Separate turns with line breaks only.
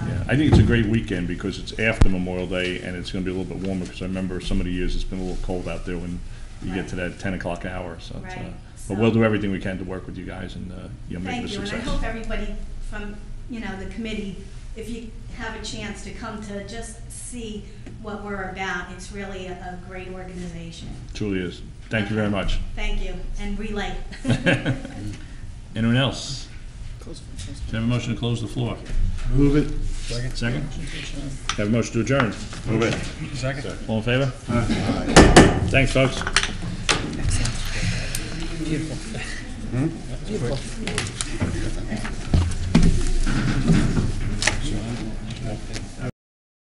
I think it's a great weekend because it's after Memorial Day and it's gonna be a little bit warmer, because I remember some of the years it's been a little cold out there when you get to that ten o'clock hour, so. it's, uh,
Right,
But we'll
so-
do everything we can to work with you guys and, uh, you know, make it a
Thank you, and I
success.
hope everybody from, you know, the committee, if you have a chance to come to just see what we're about, it's really a, a great organization.
Truly is. Thank you very much.
Thank you, and relay.
Anyone else? Can I have a motion to close the floor?
Move it.
Second? Have a motion to adjourn.
Move it.
Second. All in favor? Thanks, folks.